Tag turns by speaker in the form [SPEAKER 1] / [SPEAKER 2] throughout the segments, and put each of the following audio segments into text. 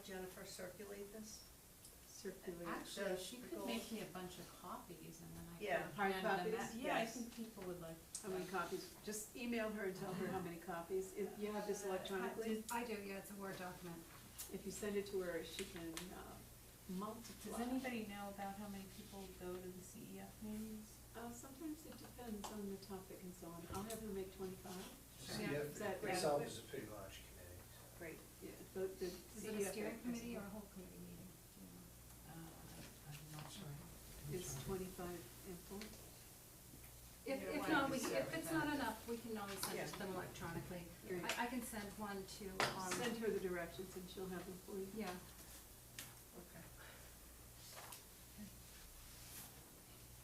[SPEAKER 1] Jennifer circulate this?
[SPEAKER 2] circulate.
[SPEAKER 1] the-
[SPEAKER 3] Actually, she
[SPEAKER 1] the
[SPEAKER 3] could
[SPEAKER 1] goals.
[SPEAKER 3] make me a bunch of copies and then I could.
[SPEAKER 1] Yeah.
[SPEAKER 2] Hard
[SPEAKER 3] hand them
[SPEAKER 2] copies?
[SPEAKER 3] out. Yeah, I
[SPEAKER 1] Yes.
[SPEAKER 3] think people would like.
[SPEAKER 2] How many copies? Just email her and tell her how many copies. If you have this electronically,
[SPEAKER 4] I do, yeah, it's a Word document.
[SPEAKER 2] if you send it to her, she can uh, multiply.
[SPEAKER 3] Does anybody know about how many people go to the CEF meetings?
[SPEAKER 2] Uh, sometimes it depends on the topic and so on. I'll have her make twenty-five.
[SPEAKER 4] Yeah.
[SPEAKER 2] Is that
[SPEAKER 1] Yeah.
[SPEAKER 2] right?
[SPEAKER 5] Itself is a pretty large committee. so.
[SPEAKER 1] Great.
[SPEAKER 2] Yeah, but the
[SPEAKER 4] Is it a
[SPEAKER 2] CEF
[SPEAKER 4] steering
[SPEAKER 2] is-
[SPEAKER 4] committee or a whole committee meeting? Do you know?
[SPEAKER 3] Uh, I'm not sure.
[SPEAKER 2] Is twenty-five ample?
[SPEAKER 4] If,
[SPEAKER 1] Yeah,
[SPEAKER 4] if
[SPEAKER 1] why
[SPEAKER 4] not,
[SPEAKER 1] don't
[SPEAKER 4] we,
[SPEAKER 1] you
[SPEAKER 4] can-
[SPEAKER 1] share
[SPEAKER 4] if
[SPEAKER 1] with
[SPEAKER 4] it's
[SPEAKER 3] them?
[SPEAKER 4] not enough, we can always send it
[SPEAKER 1] Yeah.
[SPEAKER 4] to them electronically.
[SPEAKER 2] Great.
[SPEAKER 4] I, I can send one to, um,
[SPEAKER 2] Send her the directions and she'll have them for you.
[SPEAKER 4] yeah,
[SPEAKER 1] Okay.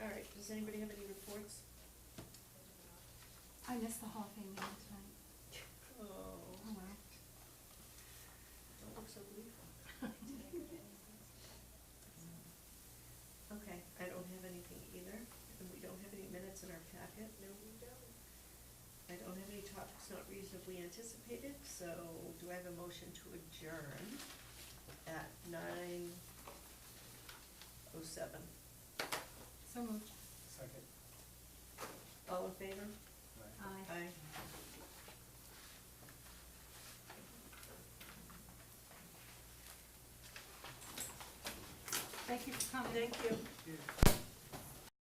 [SPEAKER 1] All right, does anybody have any reports?
[SPEAKER 4] I missed the whole thing meeting tonight.
[SPEAKER 1] Oh,
[SPEAKER 4] Oh, well.
[SPEAKER 1] don't look so blue. Okay, I don't have anything either, and we don't have any minutes in our packet, no, we don't. I don't have any topics not reasonably anticipated, so do I have a motion to adjourn at nine oh seven?
[SPEAKER 4] So moved.
[SPEAKER 5] Second.
[SPEAKER 1] All in favor?
[SPEAKER 5] Right.
[SPEAKER 4] Aye.
[SPEAKER 1] Aye.
[SPEAKER 4] Thank you for coming.
[SPEAKER 1] Thank you.